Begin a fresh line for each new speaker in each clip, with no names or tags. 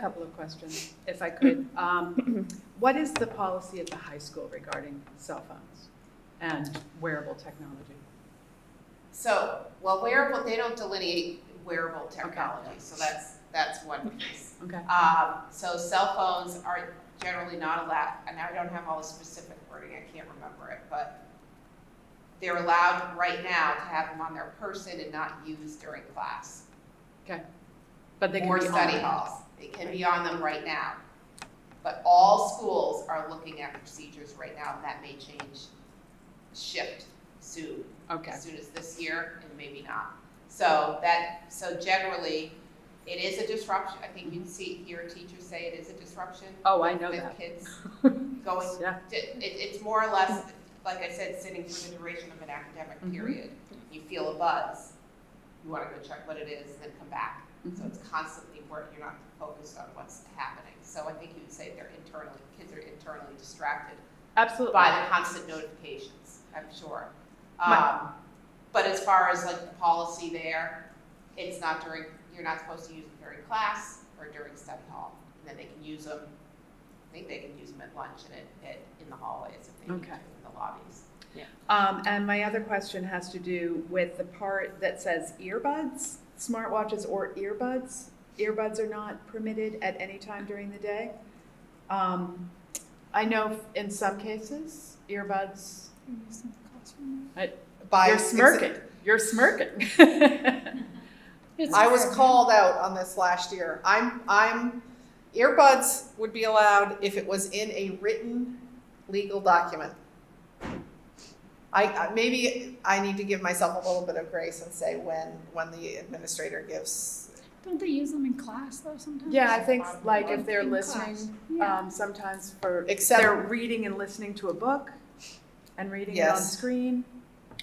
Couple of questions, if I could. Um, What is the policy at the high school regarding cell phones and wearable technology?
So, well, wearable, they don't delineate wearable technology, so that's, that's one piece.
Okay,
Um, so cell phones are generally not allowed, and I don't have all the specific wording, I can't remember it, but they're allowed right now to have them on their person and not use during class
but they can be
or
on.
study halls. They can be on them right now. But all schools are looking at procedures right now, and that may change, shift soon
Okay,
as soon as this year and maybe not. So that, so generally, it is a disruption. I think you can see, hear teachers say it is a disruption
oh, I know
with
that.
kids going,
Yeah,
it, it's more or less, like I said, sitting for the duration of an academic
Mhm.
period. You feel a buzz, you wanna go check what it is, then come back.
Mm-hmm.
So it's constantly work, you're not focused on what's happening. So I think you'd say they're internally, kids are internally distracted
absolutely.
by the constant notifications, I'm sure.
My-
Um, but as far as like the policy there, it's not during, you're not supposed to use them during class or during study hall. And then they can use them, I think they can use them at lunch and at, at, in the hallways if they need to,
Okay.
in the lobbies.
Um, and my other question has to do with the part that says earbuds, smartwatches or earbuds. Earbuds are not permitted at any time during the day. Um, I know in some cases, earbuds,
by
you're smirking, you're smirking.
I was called out on this last year. I'm I'm earbuds would be allowed if it was in a written legal document. I, I maybe I need to give myself a little bit of grace and say when when the administrator gives
Don't they use them in class though sometimes?
Yeah, I think like if they're
In class.
listening,
Yeah.
um, sometimes for, if
Except-
they're reading and listening to a book and reading it on
Yes.
screen.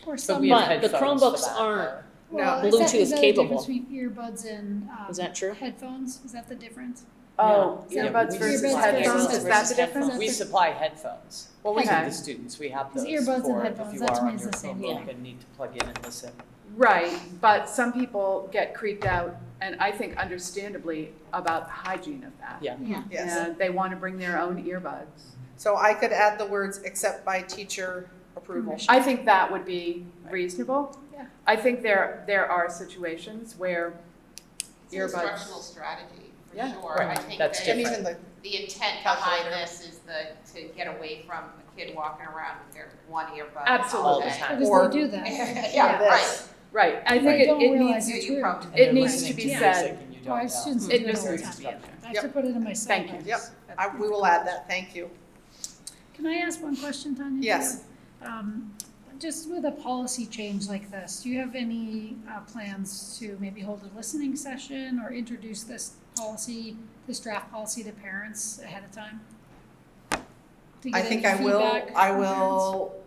Or
But
some.
we have
But the
headphones for
Chromebooks
that,
aren't.
though.
Well, is
No.
that-
Bluetooth
is that the
capable.
difference Between earbuds and, um.
Is that true?
Headphones, is that the difference?
Oh,
Yeah.
earbuds
Yeah,
versus
earbuds
headphones,
versus
is that the
headphones.
difference?
We supply headphones
Well, we
to
can.
the students, we have
It's
those
earbuds and
for if
headphones,
you
that to
are
me
on
is
your
the same
Chromebook
thing.
and need to plug in and listen.
Right, but some people get creeped out, and I think understandably, about the hygiene of that.
Yeah.
Yeah.
Yes.
And they want to bring their own earbuds.
So I could add the words except by teacher approval.
I think that would be reasonable.
Yeah.
I think there, there are situations where
It's an
Earbuds.
instructional strategy, for
Yeah.
sure. I
Right,
think
that's
that
And even the
the intent behind this is the, to get away from a kid walking around with their one earbud all
Absolutely.
day.
time.
Or-
Because they do that.
Yeah,
this.
right.
Right, I
They
think it,
don't
it
realize
needs,
You-
it's
you
weird.
probably-
And they're
It needs
listening
to be
music
said.
and you don't
Our
know.
students
It
do it all the
needs
time,
to be
yeah.
done.
I have to put it in my
Thank
syllabus.
you.
Yep. I, we will add that. Thank you.
Can I ask one question, Tanya?
Yes.
Um, just with a policy change like this, do you have any, uh, plans to maybe hold a listening session or introduce this policy, this draft policy to parents ahead of time? To
I
get
think I
any
will.
feedback
I
from parents?
will.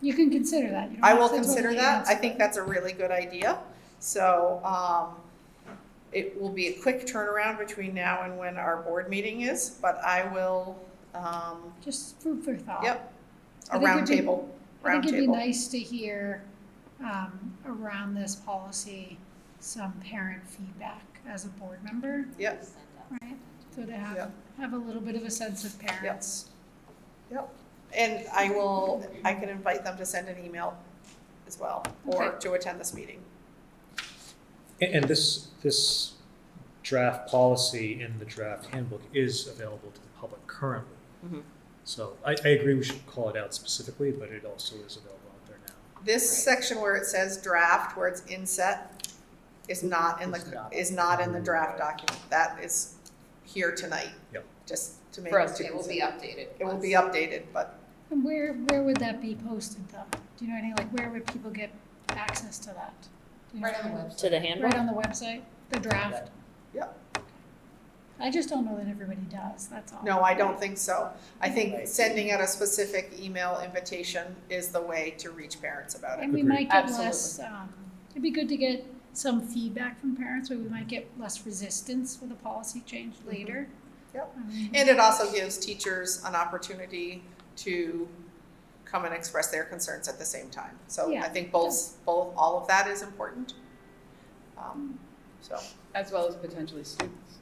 You can consider that, you don't
I
have
will
to
consider
totally
that.
answer
I think that's a really good idea. So, um, it will be a quick turnaround between now and when our board meeting is, but I will, um,
Just food for thought.
Yep,
I
a
think it'd be-
roundtable,
I think it'd be
roundtable.
nice to hear, um, around this policy, some parent feedback as a board member.
Yep,
Right, so to have,
Yep.
have a little bit of a sense of parents.
and I will, I can invite them to send an email as well, or
Okay.
to attend this meeting.
And, and this, this draft policy in the draft handbook is available to the public currently.
Mhm.
So I, I agree we should call it out specifically, but it also is available out there now.
This section where it says draft, where it's inset, is not in the,
It's not.
is not in the draft document. That is here tonight.
Yep.
Just to make.
For us to
It will be updated.
It will
once-
be updated, but
And where, where would that be posted though? Do you know any, like, where would people get access to that? Do you know?
Right on the website.
To the
Right
handbook?
on the website, the draft?
Yep.
I just don't know that everybody does, that's all.
no, I don't think so. I think
Right.
sending out a specific email invitation is the way to reach parents about it.
And we
Agreed.
might get
Absolutely.
less, um, it'd be good to get some feedback from parents, where we might get less resistance with a policy change later.
Mm-hmm. Yep.
I mean,
And it also gives teachers an opportunity to come and express their concerns at the same time. So I
Yeah.
think both, both, all of that is important. Um, So,
as well as potentially students.